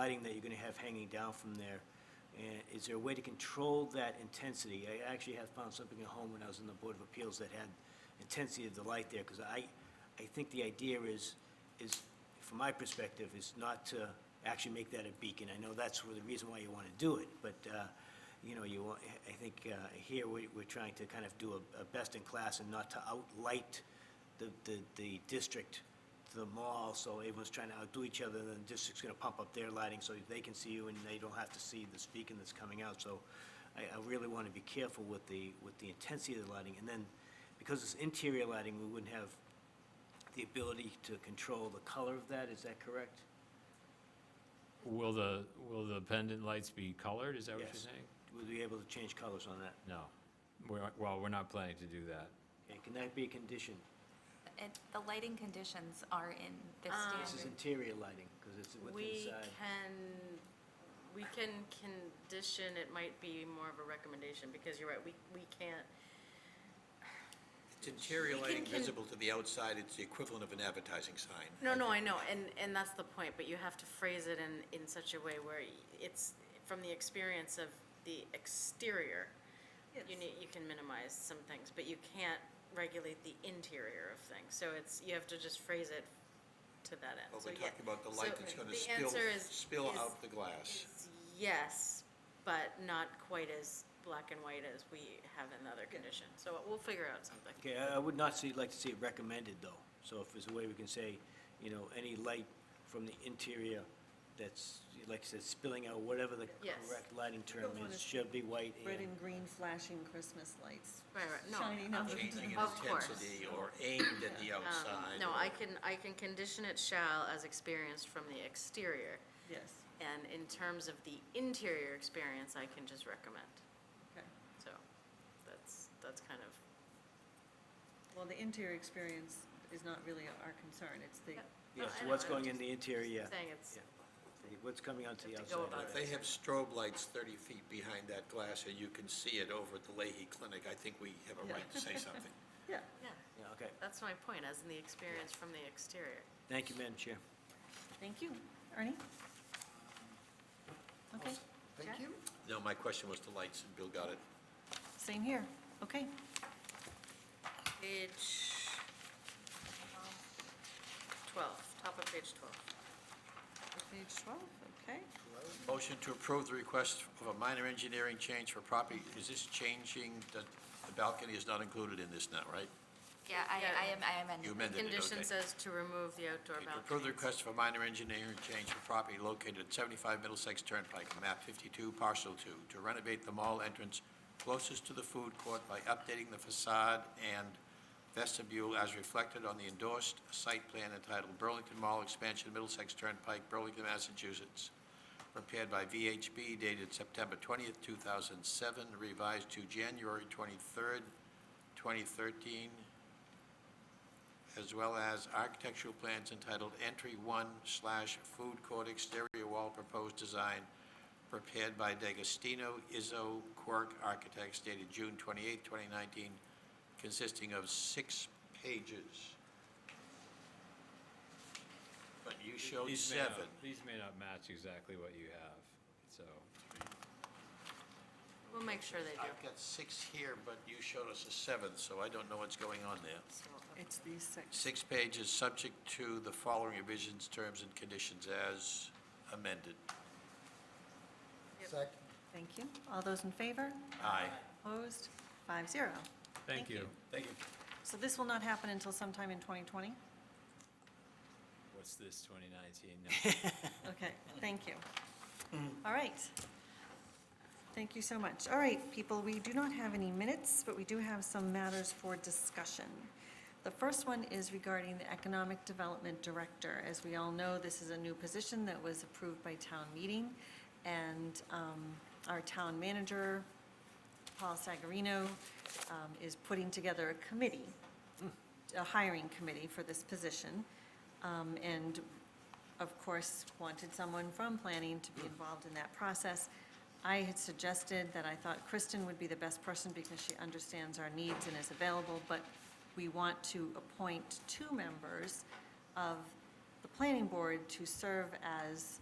lighting that you're going to have hanging down from there. And is there a way to control that intensity? I actually have found something at home when I was in the Board of Appeals that had intensity of the light there, because I, I think the idea is, is, from my perspective, is not to actually make that a beacon. I know that's where the reason why you want to do it, but, uh, you know, you, want- I think uh, here, we- we're trying to kind of do a- a best-in-class and not to outlight the, the, the district to the mall, so everyone's trying to outdo each other, and then the district's gonna pump up their lighting so they can see you and they don't have to see this beacon that's coming out, so I, I really wanna be careful with the, with the intensity of the lighting, and then, because it's interior lighting, we wouldn't have the ability to control the color of that, is that correct? Will the, will the pendant lights be colored, is that what you're Yes. saying? Would we be able to change colors on that? No. We're- Well, we're not planning to do that. And can that be a condition? And the lighting conditions are in this This is standard. interior lighting, because it's within We side. can, we can condition, it might be more of a recommendation, because you're right, we, we can't. It's We interior can lighting con- visible to the outside, it's the equivalent of an advertising sign. No, no, I know, and, and that's the point, but you have to phrase it in, in such a way where it's from the experience of the exterior. You need, you can minimize some things, but you can't regulate the interior of things, so it's, you have to just phrase it to that end. But So, we're yeah. talking about the So light that's gonna the spill, answer is- spill is- out the glass. Yes, but not quite as black and white as we have in the other condition. So we'll figure out something. Okay, I I would not see, like to see it recommended, though. So if there's a way we can say, you know, any light from the interior that's, like I said, spilling out, whatever the Yes. correct lighting term Don't wanna is, should be white red and and, green flashing Christmas lights. Right, right, no. Shining on the. Changing in Of course. Um, intensity or aimed at the outside. No, or- I can, I can condition it shall as experienced from the exterior. Yes, And in terms of the interior experience, I can just recommend. okay. So that's, that's kind of, Well, the interior experience is not really our concern, it's the, Yep. No, yes, I know, what's I'm going in just the interior, yeah. saying it's, Yeah, What's coming onto the Have to go outside. about If they have strobe lights 30 feet behind that glass and you can see it over at the Leahy Clinic, I think we have a Yeah. right to say something. yeah. yeah, Yeah, okay. that's my point, as in the experience from the exterior. Thank you, Madam Chair. Thank you. Ernie? Okay, Thank you. No, my question was the lights, and Bill got it. same here. Okay. Page 12, top of page 12. Page 12, okay. Motion to approve the request of a minor engineering change for property, is this changing, the the balcony is not included in this now, right? Yeah, I, Yeah. I am, I am in. You amended it, okay. Condition says to remove the outdoor Okay, To approve the balcony. request for minor engineering change for property located at 75 Middlesex Turnpike, map 52, parcel 2, to renovate the mall entrance closest to the food court by updating the facade and vestibule as reflected on the endorsed site plan entitled Burlington Mall Expansion Middlesex Turnpike, Burlington, Massachusetts, prepared by VHB dated September 20th, 2007, revised to January 23rd, 2013, as well as architectural plans entitled Entry One slash Food Court Exterior Wall Proposed Design, prepared by D'Agostino Izzo Quirk Architects dated June 28, 2019, consisting of six pages. But you showed These may not- seven. These may not match exactly what you have, so. We'll make sure they do. I've got six here, but you showed us a seventh, so I don't know what's going on there. So, It's these six. Six pages, subject to the following revisions, terms, and conditions as amended. yep. Thank you. All those in favor? Aye. Opposed? Five zero. Thank you. Thank you. So this will not happen until sometime in 2020? What's this, 2019? No. Okay, thank you. All right. Thank you so much. All right, people, we do not have any minutes, but we do have some matters for discussion. The first one is regarding the Economic Development Director. As we all know, this is a new position that was approved by town meeting, and um, our town manager, Paul Sagarino, um, is putting together a committee, a hiring committee for this position, um, and of course, wanted someone from planning to be involved in that process. I had suggested that I thought Kristen would be the best person because she understands our needs and is available, but we want to appoint two members of the planning board to serve as